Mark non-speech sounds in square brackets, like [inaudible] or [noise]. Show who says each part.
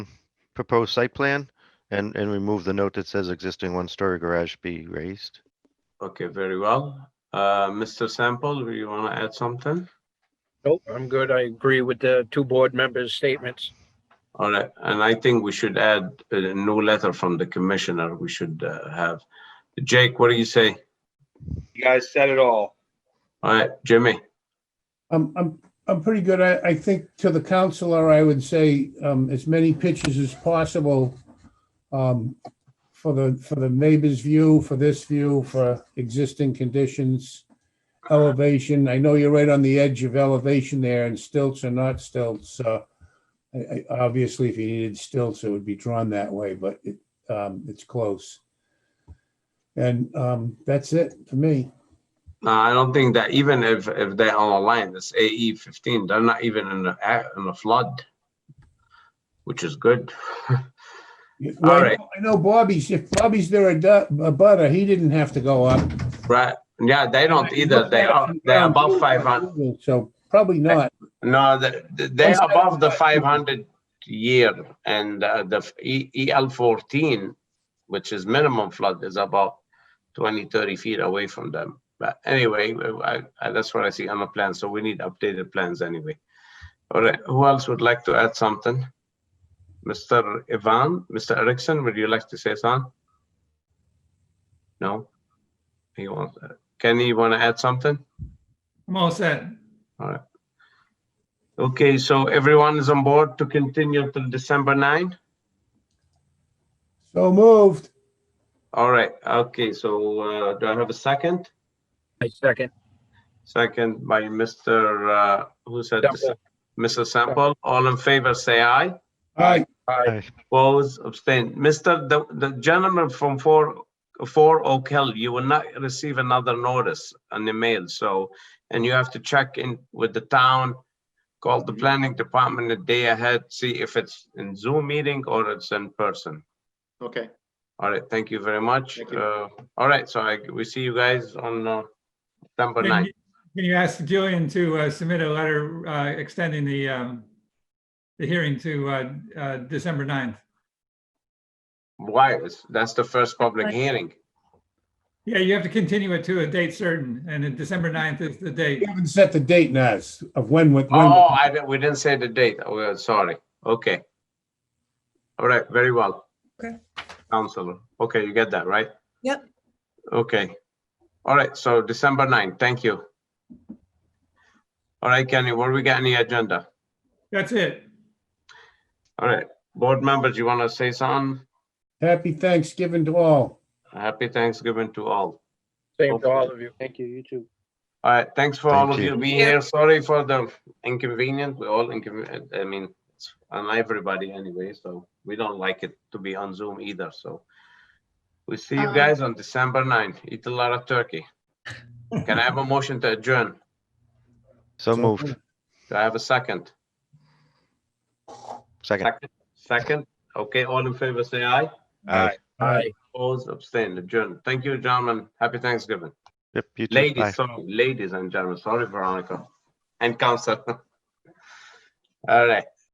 Speaker 1: proposed site plan and, and remove the note that says existing one-story garage be raised.
Speaker 2: Okay, very well. Uh, Mr. Sample, do you want to add something?
Speaker 3: Nope, I'm good. I agree with the two board members' statements.
Speaker 2: All right, and I think we should add a new letter from the commissioner. We should uh, have. Jake, what do you say?
Speaker 4: You guys said it all.
Speaker 2: All right, Jimmy?
Speaker 5: I'm, I'm, I'm pretty good. I, I think to the counselor, I would say, um, as many pitches as possible. Um, for the, for the neighbor's view, for this view, for existing conditions. Elevation, I know you're right on the edge of elevation there and stilts are not stilts, uh. I, I, obviously if you needed stilts, it would be drawn that way, but it, um, it's close. And, um, that's it for me.
Speaker 2: No, I don't think that even if, if they're on a line, it's AE fifteen, they're not even in the, a- in the flood. Which is good.
Speaker 5: Yeah,
Speaker 2: All
Speaker 5: well, I
Speaker 2: right.
Speaker 5: know- I know Bobby's, if Bobby's there a du- a butter, he didn't have to go up.
Speaker 2: Right, yeah, they don't either, they are, they're above five hundred,
Speaker 5: So probably not.
Speaker 2: no, the- the- they're above the five hundred year. And uh, the f- E- EL fourteen, which is minimum flood, is about 20, 30 feet away from them. But anyway, I, I, that's what I see on the plan, so we need updated plans anyway. All right, who else would like to add something? Mr. Ivan, Mr. Erickson, would you like to say something? No? He wants, uh, Kenny, you want to add something?
Speaker 6: I'm all set.
Speaker 2: Okay, so everyone is on board to continue till December nine?
Speaker 5: So moved.
Speaker 2: All right, okay, so, uh, do I have a second?
Speaker 3: I second.
Speaker 2: Second by Mr., uh, who said, the se-
Speaker 3: Temple.
Speaker 2: Mr. Sample, all in favor, say aye.
Speaker 5: All right,
Speaker 3: Aye.
Speaker 2: Oppose, abstain. Mr., the, the gentleman from four, four Oak Hill, you will not receive another notice on the mail, so, and you have to check in with the town, call
Speaker 4: Mm-hmm.
Speaker 2: the planning department a day ahead, see if it's in Zoom meeting or it's in person.
Speaker 4: Okay.
Speaker 2: All right, thank you very much.
Speaker 4: Thank you.
Speaker 2: Uh, all right, so I, we see you guys on, uh, September
Speaker 6: Can
Speaker 2: ninth.
Speaker 6: you- can you ask Julian to uh, submit a letter uh, extending the, um, the hearing to uh, uh, December 9th?
Speaker 2: Why? It's- That's the first public
Speaker 6: Right.
Speaker 2: hearing.
Speaker 6: Yeah, you have to continue it to a date certain, and then December 9th is the date.
Speaker 5: we haven't set the date, Naz, of when, when.
Speaker 2: Oh, I, di- we didn't say the date. Oh, uh, sorry. Okay. All right, very well.
Speaker 6: Okay.
Speaker 2: Counselor, okay, you get that, right?
Speaker 7: Yep.
Speaker 2: Okay. All right, so December 9th, thank you. All right, Kenny, what do we got on the agenda?
Speaker 6: That's it.
Speaker 2: All right, board members, you want to say something?
Speaker 5: Happy Thanksgiving to all.
Speaker 2: Happy Thanksgiving to all.
Speaker 3: Same to all of you. Thank you, you too.
Speaker 2: All right, thanks for all
Speaker 1: Thank
Speaker 2: of you
Speaker 1: you.
Speaker 2: being here. Sorry for the inconvenience. We're all inconvenient. I mean, it's on everybody anyway, so we don't like it to be on Zoom either, so. We see you
Speaker 7: Um,
Speaker 2: guys on December 9th. Eat a lot of turkey. Can I have a motion to adjourn?
Speaker 1: So moved.
Speaker 2: Do I have a second?
Speaker 1: Second.
Speaker 2: Second? Okay, all in favor, say aye.
Speaker 1: Aye.
Speaker 3: Aye.
Speaker 2: Opposed, abstain, adjourn. Thank you, gentlemen. Happy Thanksgiving.
Speaker 1: Yep, you too. Bye.
Speaker 2: Ladies, sorry, ladies and gentlemen, sorry, Veronica and Council. [laughs] All right.